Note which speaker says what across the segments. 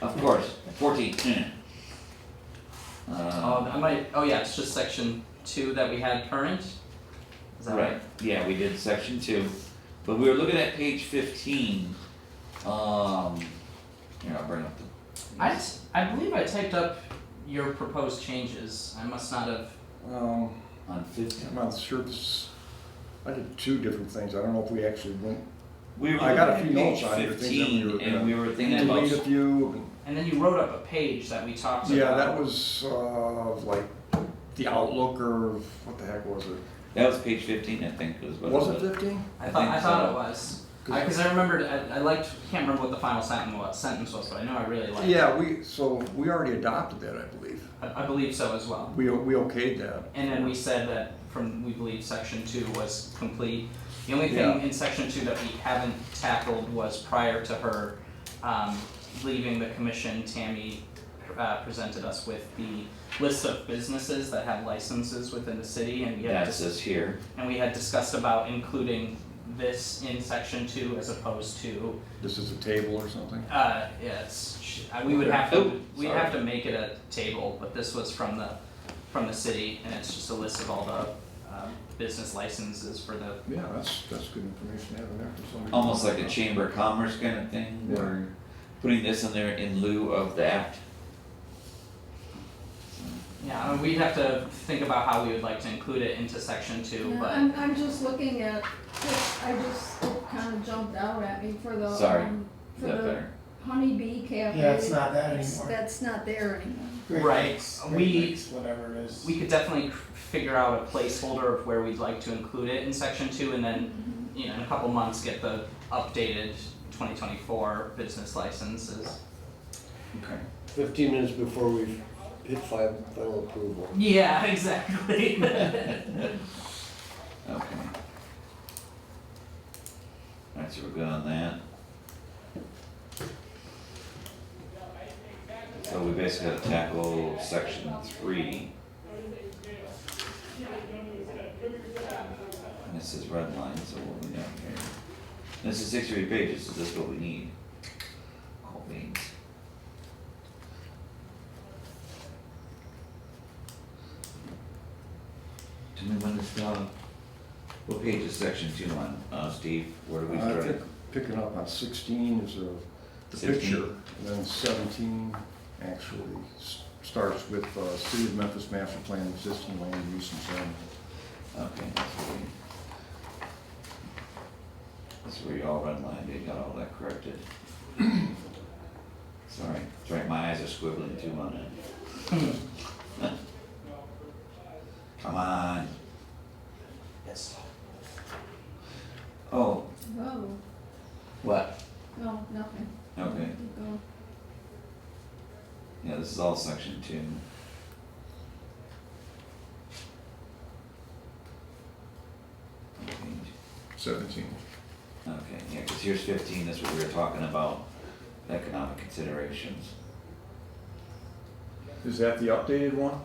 Speaker 1: Of course, fourteen. eh.
Speaker 2: Um,
Speaker 1: Uh,
Speaker 2: I might. Oh yeah, it's just section two that we had current. Is that right?
Speaker 1: right, yeah, we did section two, but we were looking at page fifteen, um, here, I'll bring up the.
Speaker 2: I just, I believe I typed up your proposed changes. I must not have.
Speaker 3: Um,
Speaker 1: On fifteen,
Speaker 3: I'm not sure this, I did two different things, I don't know if we actually went,
Speaker 1: we were
Speaker 3: I got a
Speaker 1: looking
Speaker 3: few
Speaker 1: at
Speaker 3: notes
Speaker 1: page
Speaker 3: on here, things that we were
Speaker 1: fifteen, and
Speaker 3: gonna
Speaker 1: we were thinking about.
Speaker 3: delete a few.
Speaker 2: And then you wrote up a page that we talked
Speaker 3: Yeah,
Speaker 2: about.
Speaker 3: that was, uh, like, the outlook or, what the heck was it?
Speaker 1: That was page fifteen, I think, was what it was.
Speaker 3: Was it fifteen?
Speaker 2: I
Speaker 1: I
Speaker 2: thought.
Speaker 1: think
Speaker 2: I thought
Speaker 1: so.
Speaker 2: it was. Because I, remembered. I, I liked. Can't remember what the final sentence was. Sentence was, but I know I really liked. it.
Speaker 3: Yeah, we, so we already adopted that, I believe,
Speaker 2: I, I believe so as well.
Speaker 3: we,
Speaker 1: Uh-huh.
Speaker 3: we okayed that.
Speaker 2: And then we said that from, we believe section two was complete. The only
Speaker 3: Yeah.
Speaker 2: thing in section two that we haven't tackled was prior to her, um, leaving the commission, Tammy, uh, presented us with the list of businesses that have licenses within the city and we had
Speaker 1: That's
Speaker 2: dis-
Speaker 1: us here.
Speaker 2: and we had discussed about including this in section two as opposed to,
Speaker 3: This is a table or something?
Speaker 2: uh, yes, sh- uh, we would have to,
Speaker 1: Oh,
Speaker 2: we'd have to make it a table, but this was from the, from the city, and it's just a list of all the, um, business licenses for the,
Speaker 3: Yeah, that's, that's good information to have in there for somebody.
Speaker 1: almost like a chamber of commerce kind of thing,
Speaker 3: Yeah.
Speaker 1: or putting this in there in lieu of that.
Speaker 2: yeah, I mean, we'd have to think about how we would like to include it into section two,
Speaker 4: Yeah,
Speaker 2: but,
Speaker 4: I'm, I'm just looking at, this. I just, it kind of jumped out at me for the,
Speaker 1: Sorry.
Speaker 4: um,
Speaker 1: Is
Speaker 4: for
Speaker 1: that
Speaker 4: the
Speaker 1: better?
Speaker 4: honeybee cafe.
Speaker 5: Yeah, it's not that
Speaker 4: It's-
Speaker 5: anymore.
Speaker 4: That's not there anymore.
Speaker 5: Great
Speaker 2: Right.
Speaker 5: Lakes, Great
Speaker 2: We-
Speaker 5: Lakes, whatever it is.
Speaker 2: we could definitely c- figure out a placeholder of where we'd like to include it in section two, and then,
Speaker 4: Mm-hmm.
Speaker 2: you know, in a couple months, get the updated twenty twenty-four business licenses.
Speaker 1: Okay.
Speaker 6: Fifteen minutes before we hit fi- final approval.
Speaker 2: Yeah, exactly.
Speaker 1: Okay. Alright, so we're good on that. So we basically gotta tackle section three. And this is red line, so what we got here? This is sixty-three pages, so this is what we need. Cool beans. Tell me when this, uh, what page is section two on, uh, Steve, where do we
Speaker 3: I
Speaker 1: start?
Speaker 3: think picking up on sixteen is a, the
Speaker 1: 16.
Speaker 3: picture, and then seventeen actually s- starts with, uh, City of Memphis Master Plan Existing Land Use and Zoning.
Speaker 1: Okay, that's where you. That's where you all redlined, you got all that corrected. Sorry, that's right, my eyes are squibbling too on it. Come on. Oh,
Speaker 4: Whoa,
Speaker 1: what?
Speaker 4: no, nothing.
Speaker 1: Okay,
Speaker 4: Keep going.
Speaker 1: yeah, this is all section two. Okay.
Speaker 3: Seventeen.
Speaker 1: Okay, yeah, cause here's fifteen, that's what we were talking about, economic considerations.
Speaker 3: Is that the updated one?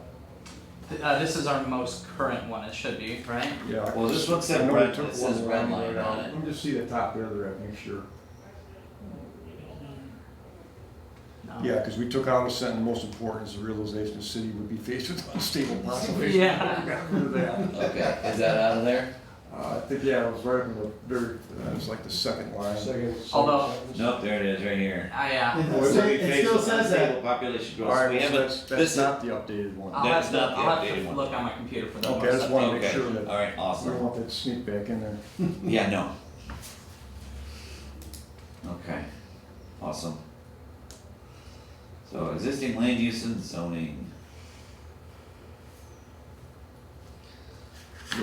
Speaker 2: Th- Uh, this is our most current one, it should be, right?
Speaker 3: Yeah. I-
Speaker 1: Well, this one said
Speaker 3: I know we
Speaker 1: red-
Speaker 3: took
Speaker 1: it says
Speaker 3: one
Speaker 1: red
Speaker 3: line
Speaker 1: line
Speaker 3: right
Speaker 1: on
Speaker 3: out.
Speaker 1: it.
Speaker 3: Let me just see the top there, there, make sure.
Speaker 2: No.
Speaker 3: Yeah, because we took out a sentence, most important is the realization the city would be faced with unstable population.
Speaker 2: Yeah.
Speaker 3: Got rid of that.
Speaker 1: Okay, is that out of there?
Speaker 3: Uh, I think, yeah, it was right in the very, it was like the second line.
Speaker 6: Second.
Speaker 2: Although-
Speaker 6: second
Speaker 1: Nope, there it is, right here.
Speaker 2: I, uh,
Speaker 5: It still- it still says that.
Speaker 1: Population
Speaker 3: All
Speaker 1: growth,
Speaker 3: right,
Speaker 1: we
Speaker 3: so
Speaker 1: haven't,
Speaker 3: that's, that's
Speaker 1: this is,
Speaker 3: not the updated one.
Speaker 2: I'll
Speaker 1: That's
Speaker 2: have to,
Speaker 1: not the
Speaker 2: I'll have
Speaker 1: updated
Speaker 2: to
Speaker 1: one.
Speaker 2: look on my computer for the most.
Speaker 3: Okay, I just wanna make
Speaker 1: okay,
Speaker 3: sure that-
Speaker 1: alright,
Speaker 3: We don't
Speaker 1: awesome,
Speaker 3: want that to sneak back in there.
Speaker 1: yeah, no. Okay, awesome. So existing land use and zoning,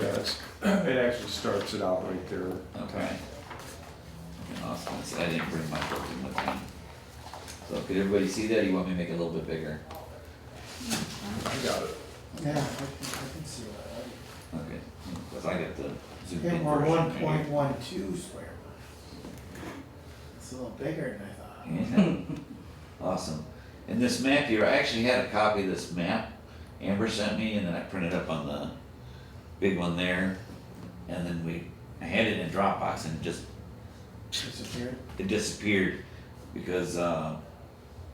Speaker 3: Yeah, it's, it actually starts it out right there.
Speaker 1: okay. Okay, awesome, I said I didn't bring my book in with me. So could everybody see that, you want me to make it a little bit bigger?
Speaker 3: I got it.
Speaker 5: Yeah, I can, I can see that.
Speaker 1: Okay, because I got the zoomed
Speaker 5: Okay,
Speaker 1: in
Speaker 5: we're
Speaker 1: version
Speaker 5: one
Speaker 1: right
Speaker 5: point
Speaker 1: here.
Speaker 5: one two square. It's a little bigger than I thought.
Speaker 1: Yeah. Awesome. And this map here, I actually had a copy of this map Amber sent me and then I printed up on the big one there. And then we, I had it in Dropbox and it just,
Speaker 5: Disappeared.
Speaker 1: it disappeared because, uh,